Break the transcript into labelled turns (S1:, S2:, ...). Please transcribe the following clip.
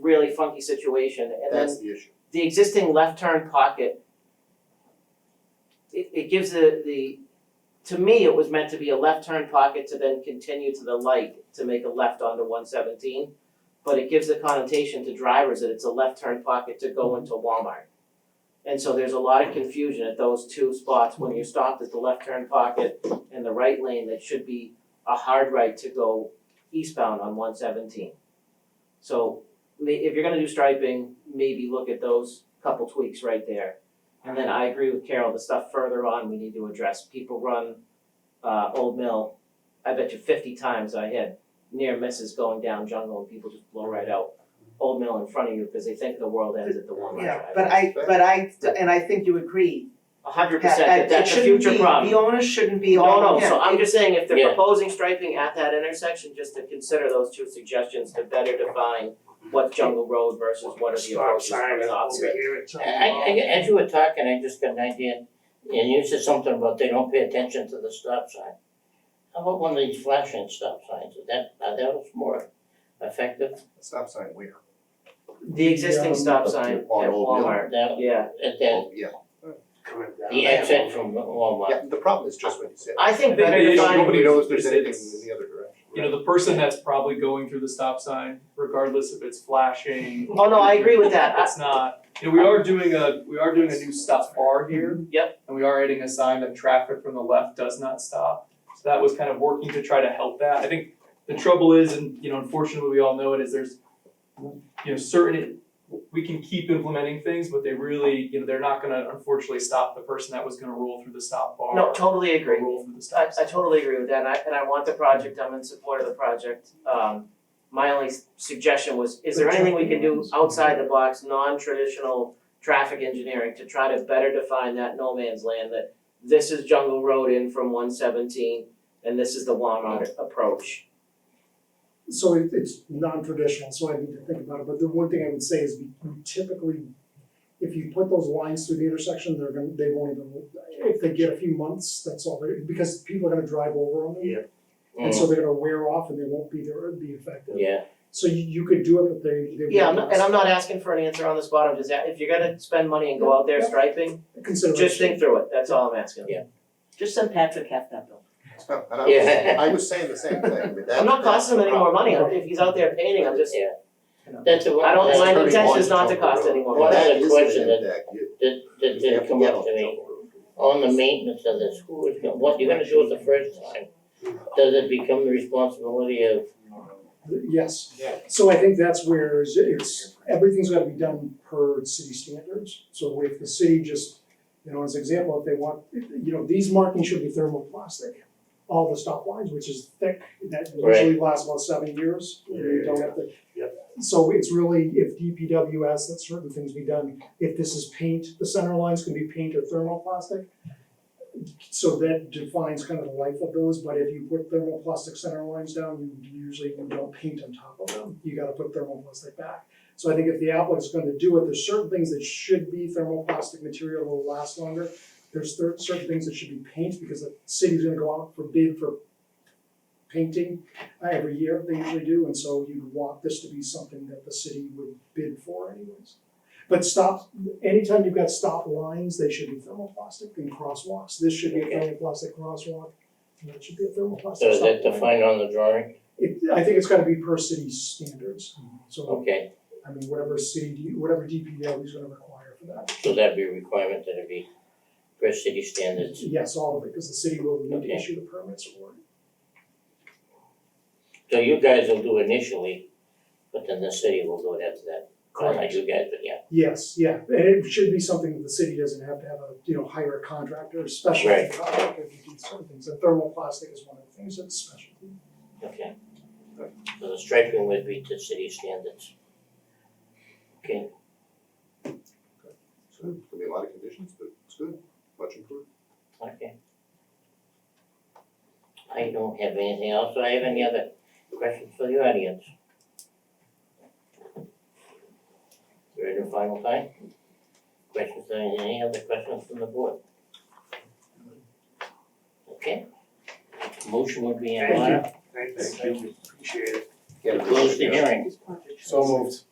S1: really funky situation, and then
S2: That's the issue.
S1: the existing left turn pocket, it it gives the the, to me, it was meant to be a left turn pocket to then continue to the light to make a left onto one seventeen. But it gives the connotation to drivers that it's a left turn pocket to go into Walmart. And so there's a lot of confusion at those two spots when you're stopped at the left turn pocket and the right lane that should be a hard right to go eastbound on one seventeen. So ma- if you're gonna do striping, maybe look at those couple tweaks right there. And then I agree with Carol, the stuff further on we need to address, people run uh Old Mill, I bet you fifty times I had near misses going down jungle and people just blow right out Old Mill in front of you, cause they think the world ends at the one mile
S3: Yeah,
S1: drive.
S3: but I, but I, and I think you agree,
S1: A hundred
S3: that,
S1: percent, that
S3: that it
S1: that's a
S3: shouldn't
S1: future
S3: be,
S1: problem.
S3: the onus shouldn't be all,
S1: No, no,
S3: yeah,
S1: so I'm
S3: it-
S1: just saying, if they're
S4: Yeah.
S1: proposing striping at that intersection, just to consider those two suggestions to better define what jungle road versus what are the
S5: Stop
S1: approaches
S5: sign
S1: from the opposite.
S5: over here at some.
S4: I, I, as you were talking, I just got an idea, and you said something about they don't pay attention to the stop sign. How about one of these flashing stop signs, Is that, uh, that was more effective,
S2: Stop sign where?
S1: The existing stop sign at
S2: On Old Mill.
S1: Walmart,
S4: that,
S1: yeah.
S4: at that,
S2: Oh, yeah.
S5: Coming down.
S4: the exit from Walmart.
S2: Yeah, the problem is just what you said.
S1: I think bigger
S6: That is-
S1: design
S2: Nobody knows there's
S6: is
S2: anything
S6: it's-
S2: in the other direction.
S6: You know, the person that's probably going through the stop sign, regardless if it's flashing.
S1: Oh, no, I agree with that. I-
S6: It's not, you know, we are doing a, we are doing a new stop bar here.
S1: Mm-hmm. Yep.
S6: And we are adding a sign that traffic from the left does not stop. So that was kind of working to try to help that. I think the trouble is, and you know, unfortunately, we all know it, is there's, you know, certain, we can keep implementing things, but they really, you know, they're not gonna unfortunately stop the person that was gonna roll through the stop bar.
S1: No, totally
S6: or
S1: agree.
S6: Roll through the
S1: I
S6: stop
S1: I
S6: sign.
S1: totally agree with that, and I and I want the project, I'm in support of the project. Um my only s- suggestion was, is there anything we can do outside the box, non-traditional traffic engineering to try to better define that no man's land that this is Jungle Road in from one seventeen and this is the Walmart approach.
S7: So it it's non-traditional, so I need to think about it, but the one thing I would say is we typically, if you put those lines through the intersection, they're gonna, they won't even, if they get a few months, that's all, they because people are gonna drive over on them.
S5: Yeah.
S7: And so they're gonna wear off and they won't be there, be effective.
S4: Mm, Yeah,
S7: So you you could do it, but they they won't.
S1: Yeah, I'm not- and I'm not asking for an answer on the spot, I'm just, a- if you're gonna spend money and go out there striping,
S7: Consideration.
S1: just think through it, that's all I'm asking.
S3: just send Patrick half that bill.
S2: And I was,
S4: Yeah.
S2: I was saying the same thing, but that.
S1: I'm not
S2: that's
S1: costing
S2: the
S1: him any more
S2: problem.
S1: money, if he's out there painting, I'm just,
S4: that's the one,
S1: I don't,
S2: That's
S1: my
S2: turning
S1: intent
S2: on
S1: is not to
S2: Jungle
S1: cost
S2: Road.
S1: any more
S4: Well,
S1: money.
S4: that is a question
S2: an
S4: that-
S2: impact. You-
S4: that, that
S2: you
S4: did
S2: have
S4: come
S2: get
S4: up
S2: on
S4: to me,
S2: Jungle Road.
S4: on the maintenance of this, who is, gonna- what you're gonna do it the first time, does it become the responsibility of
S7: Yes.
S5: Yeah.
S7: So I think that's where is- it's, everything's gotta be done per city standards. So if the city just, you know, as an example, if they want, you know, these markings should be thermoplastic. All the stop lines, which is thick, that usually lasts about seven years, you don't have to. So it's really, if DPW asks that certain things be done, if this is paint, the center lines can be paint or thermoplastic. So that defines kind of the life of those, but if you put thermoplastic center lines down, you usually don't paint on top of them, you gotta put thermoplastic back. So I think if the applicant's gonna do it, there's certain things that should be thermoplastic material that will last longer. There's cer- certain things that should be paint, because the city's gonna go out for bid for painting uh, every year, they usually do, and so you'd want this to be something that the city would bid for anyways. But stop, anytime you've got stop lines, they should be thermoplastic and crosswalks, this should be a thermoplastic crosswalk, and that should be a thermoplastic stop
S4: So is that
S7: line.
S4: defined on the drawing?
S7: It, I think it's gotta be per city standards, so,
S4: Okay,
S7: I mean, whatever city, whatever DPW is gonna require for that.
S4: so that'd be a requirement that it be per city standards.
S7: Yes, all of it, because the city will need to
S4: Okay.
S7: issue the permits for it.
S4: So you guys will do initially, but then the city will do it after that. Not like you guys, but yeah.
S7: Yes, yeah, and it should be something that the city doesn't have to have a, you know, hire a contractor, a specialty
S4: Right.
S7: contractor to do certain things, and thermoplastic is one of the things that's specialty.
S4: Okay. So the striping would be to city standards. Okay,
S2: So, there'll be a lot of conditions, but it's good, much improved.
S4: okay. I don't have anything else. Do I have any other questions for the audience? Third and final time? Questions, uh, any other questions from the board? Okay. Motion would be in
S5: Thank you.
S4: order.
S5: Thanks, thank you, appreciate it.
S2: Get a
S4: Close the
S2: decision.
S4: hearing.
S5: So moved.